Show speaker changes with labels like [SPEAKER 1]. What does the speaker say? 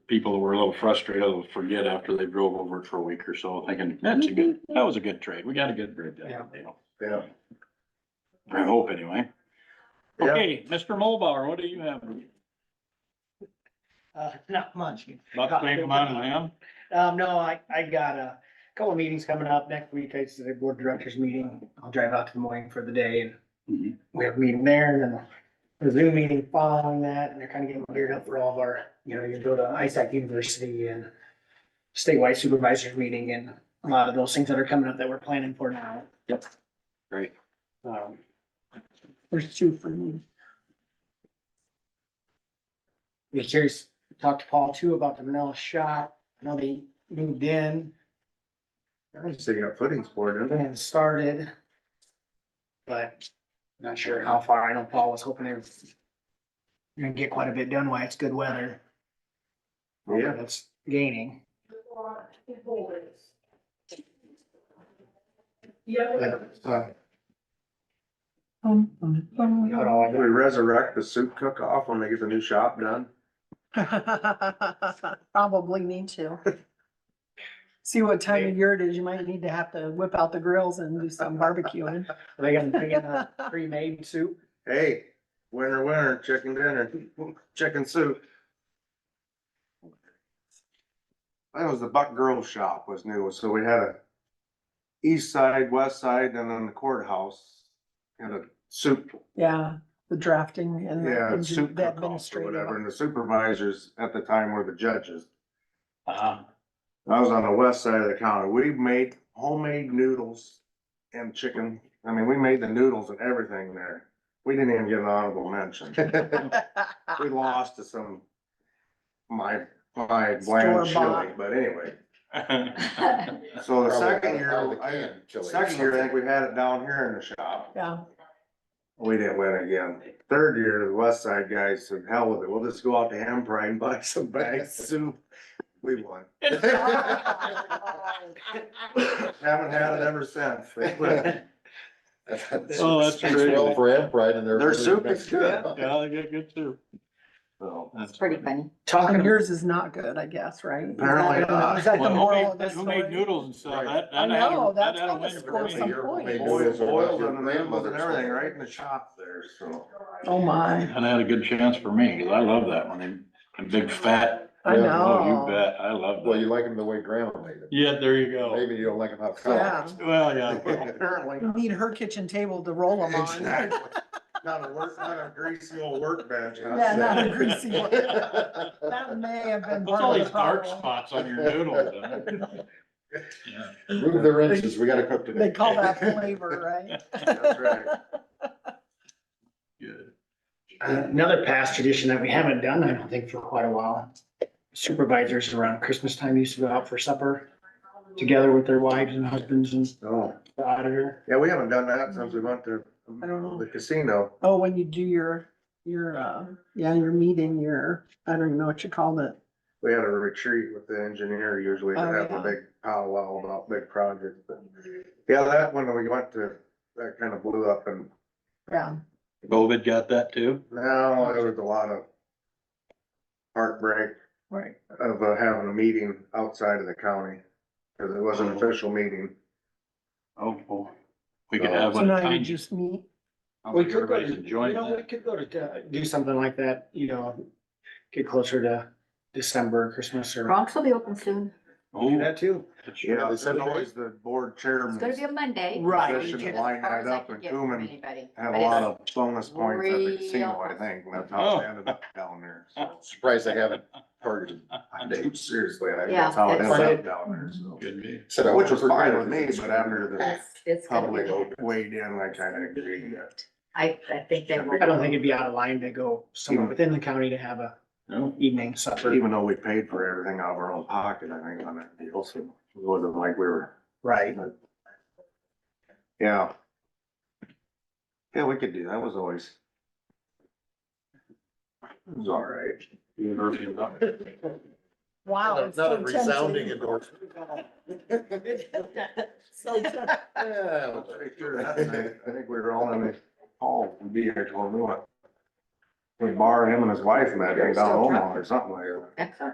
[SPEAKER 1] people were a little frustrated, will forget after they drove over it for a week or so, thinking, that's a good, that was a good trade. We got a good bid
[SPEAKER 2] Yeah.
[SPEAKER 1] that day.
[SPEAKER 3] Yeah.
[SPEAKER 1] I hope anyway.
[SPEAKER 3] Yeah.
[SPEAKER 1] Okay, Mr. Mulbauer, what do you have?
[SPEAKER 2] Uh, not much.
[SPEAKER 1] About the same amount as him?
[SPEAKER 2] Um, no, I, I got a couple of meetings coming up next week. I said a board directors meeting. I'll drive out to Des Moines for the day and
[SPEAKER 1] Mhm.
[SPEAKER 2] we have a meeting there and then a Zoom meeting following that. And they're kind of getting geared up for all of our, you know, you go to ISAC University and statewide supervisors meeting and a lot of those things that are coming up that we're planning for now.
[SPEAKER 1] Yep. Great.
[SPEAKER 2] Um, There's two for me. Be curious, talk to Paul too about the Manila shop. I know they moved in.
[SPEAKER 3] I just think our footings for it, isn't it?
[SPEAKER 2] and started. But not sure how far. I know Paul was hoping they were gonna get quite a bit done while it's good weather. Hopefully
[SPEAKER 3] Yeah.
[SPEAKER 2] It's gaining. But, uh, Not all I
[SPEAKER 3] We resurrect the soup cook-off when they get the new shop done.
[SPEAKER 4] Probably need to. See what time of year it is. You might need to have to whip out the grills and do some barbecuing.
[SPEAKER 2] Are they gonna bring in a pre-made soup?
[SPEAKER 3] Hey, winner, winner, chicken dinner, chicken soup. That was the Buck Girl Shop was new, so we had a east side, west side, and then the courthouse. Had a soup
[SPEAKER 4] Yeah, the drafting and the
[SPEAKER 3] Yeah,
[SPEAKER 4] engi-
[SPEAKER 3] soup
[SPEAKER 4] the
[SPEAKER 3] cook-offs or whatever,
[SPEAKER 4] administrative.
[SPEAKER 3] and the supervisors at the time were the judges.
[SPEAKER 1] Uh,
[SPEAKER 3] I was on the west side of the county, we made homemade noodles and chicken, I mean, we made the noodles and everything there. We didn't even get an honorable mention, we lost to some, my, my bland
[SPEAKER 4] Store-bought.
[SPEAKER 3] chili, but anyway. So the
[SPEAKER 5] Probably
[SPEAKER 3] second
[SPEAKER 5] out of
[SPEAKER 3] year,
[SPEAKER 5] the
[SPEAKER 3] I,
[SPEAKER 5] can, chili or
[SPEAKER 3] second year, I think
[SPEAKER 5] something.
[SPEAKER 3] we had it down here in the shop,
[SPEAKER 4] Yeah,
[SPEAKER 3] we didn't win again. Third year, the west side guys said, hell with it, we'll just go out to Empire and buy some bags of soup, we won. Haven't had it ever since. They quit.
[SPEAKER 1] Oh, that's
[SPEAKER 5] Speaks
[SPEAKER 1] great.
[SPEAKER 5] well for Ampride and their.
[SPEAKER 3] Their soup is good.
[SPEAKER 1] Yeah, they get good too. So.
[SPEAKER 6] It's pretty funny.
[SPEAKER 4] and
[SPEAKER 2] Talking,
[SPEAKER 4] yours is not good, I guess, right? Is that-
[SPEAKER 3] Apparently not.
[SPEAKER 4] Is that the
[SPEAKER 1] Well, who
[SPEAKER 4] moral
[SPEAKER 1] made-
[SPEAKER 4] of this
[SPEAKER 1] Who made
[SPEAKER 4] story?
[SPEAKER 1] noodles and stuff?
[SPEAKER 5] Right.
[SPEAKER 1] That-
[SPEAKER 4] I
[SPEAKER 1] that had a-
[SPEAKER 4] know,
[SPEAKER 1] that
[SPEAKER 4] that's
[SPEAKER 1] had a
[SPEAKER 4] gotta
[SPEAKER 1] winner for
[SPEAKER 4] score
[SPEAKER 1] me.
[SPEAKER 4] some points.
[SPEAKER 3] Boiled, boiled and the noodles and everything right in the shop there, so.
[SPEAKER 4] Oh, my,
[SPEAKER 1] And I had a good chance for me, 'cause I love that one, and a big fat,
[SPEAKER 4] I
[SPEAKER 5] Yeah,
[SPEAKER 1] oh,
[SPEAKER 4] know.
[SPEAKER 1] you bet, I love
[SPEAKER 5] Well,
[SPEAKER 1] that.
[SPEAKER 5] you like them the way grandma made them.
[SPEAKER 1] Yeah, there you
[SPEAKER 4] Oh.
[SPEAKER 1] go.
[SPEAKER 5] Maybe you don't like them how
[SPEAKER 4] Yeah.
[SPEAKER 5] come.
[SPEAKER 1] Well, yeah.
[SPEAKER 3] Apparently.
[SPEAKER 4] You Need her kitchen table to roll them on.
[SPEAKER 3] Exactly. Not a work, not a greasy old workbench. I'd
[SPEAKER 4] Yeah, not a
[SPEAKER 3] say.
[SPEAKER 4] greasy one. That may have been
[SPEAKER 1] What's
[SPEAKER 4] part
[SPEAKER 1] all
[SPEAKER 4] of
[SPEAKER 1] these
[SPEAKER 4] the
[SPEAKER 1] dark
[SPEAKER 4] problem.
[SPEAKER 1] spots on your noodles? huh? Yeah.
[SPEAKER 5] Move their inches, we gotta cook today.
[SPEAKER 4] They call that flavor, right?
[SPEAKER 3] That's right.
[SPEAKER 1] Good.
[SPEAKER 2] another past tradition that we haven't done, I don't think for quite a while. Supervisors around Christmas time used to go out for supper together with their wives and husbands and
[SPEAKER 3] Oh,
[SPEAKER 2] the auditor.
[SPEAKER 3] yeah, we haven't done that since we went to
[SPEAKER 4] I don't know.
[SPEAKER 3] the casino.
[SPEAKER 4] Oh, when you do your, your, uh, yeah, your meeting, your, I don't even know what you called it.
[SPEAKER 3] We had a retreat with the engineer usually to
[SPEAKER 4] Oh,
[SPEAKER 3] have a
[SPEAKER 4] yeah.
[SPEAKER 3] big powwow about big projects, but. Yeah, that one we went to, that kind of blew up and
[SPEAKER 4] Yeah,
[SPEAKER 1] COVID got that too?
[SPEAKER 3] now there was a lot of heartbreak
[SPEAKER 4] right.
[SPEAKER 3] of uh, having a meeting outside of the county, because it wasn't an official meeting.
[SPEAKER 1] Oh, boy. Uh, we could have
[SPEAKER 4] So
[SPEAKER 1] one.
[SPEAKER 4] now
[SPEAKER 1] tiny-
[SPEAKER 4] you just meet.
[SPEAKER 1] I
[SPEAKER 2] We
[SPEAKER 1] think
[SPEAKER 2] could go
[SPEAKER 1] Everybody's
[SPEAKER 2] to, you
[SPEAKER 1] enjoying
[SPEAKER 2] know, we
[SPEAKER 1] that.
[SPEAKER 2] could go to, uh, do something like that, you know, get closer to December, Christmas or
[SPEAKER 6] Bronx will be open soon.
[SPEAKER 2] do
[SPEAKER 1] Oh,
[SPEAKER 2] that too.
[SPEAKER 3] Yeah,
[SPEAKER 1] yeah.
[SPEAKER 3] it's always the board
[SPEAKER 6] It's gonna be
[SPEAKER 3] chairman
[SPEAKER 6] a Monday.
[SPEAKER 2] Right.
[SPEAKER 6] That's
[SPEAKER 3] Position
[SPEAKER 6] as
[SPEAKER 3] line
[SPEAKER 6] far as
[SPEAKER 3] that
[SPEAKER 6] I
[SPEAKER 3] up
[SPEAKER 6] can
[SPEAKER 3] and
[SPEAKER 6] get from
[SPEAKER 3] Truman
[SPEAKER 6] anybody.
[SPEAKER 3] had
[SPEAKER 6] But
[SPEAKER 3] a
[SPEAKER 6] it's-
[SPEAKER 3] lot of bonus points at the casino, I
[SPEAKER 6] Real-
[SPEAKER 3] think, and that's how it ended up down there, so.
[SPEAKER 5] Surprised they haven't targeted.
[SPEAKER 3] Dude, Seriously, I think
[SPEAKER 6] Yeah,
[SPEAKER 3] that's how it
[SPEAKER 6] that's-
[SPEAKER 3] ended up down there, so.
[SPEAKER 1] Could be.
[SPEAKER 5] Said I
[SPEAKER 3] Which was
[SPEAKER 5] would've
[SPEAKER 3] fine with
[SPEAKER 5] forgotten.
[SPEAKER 3] me, but after
[SPEAKER 6] It's, it's
[SPEAKER 3] the
[SPEAKER 6] gonna be.
[SPEAKER 3] public weighed in, I kinda agreed that.
[SPEAKER 6] I, I think they will.
[SPEAKER 2] I don't think it'd be out of line to go somewhere within the county to have a
[SPEAKER 1] Hmm. No.
[SPEAKER 2] evening supper.
[SPEAKER 3] Even though we paid for everything out of our own pocket, I think, on that deal, so it wasn't like we were,
[SPEAKER 2] Right.
[SPEAKER 3] yeah. Yeah, we could do, that was always. It was all right.
[SPEAKER 4] Wow.
[SPEAKER 5] Not
[SPEAKER 4] it's
[SPEAKER 5] not
[SPEAKER 4] so
[SPEAKER 5] a resounding
[SPEAKER 4] tempting.
[SPEAKER 5] endorsement.
[SPEAKER 4] So tempting.
[SPEAKER 5] Yeah.
[SPEAKER 3] Pretty sure that night, I think we were all in the hall, we'd be here till noon. We borrowed him and his wife met, they down Omaha or something like that.
[SPEAKER 6] Excellent.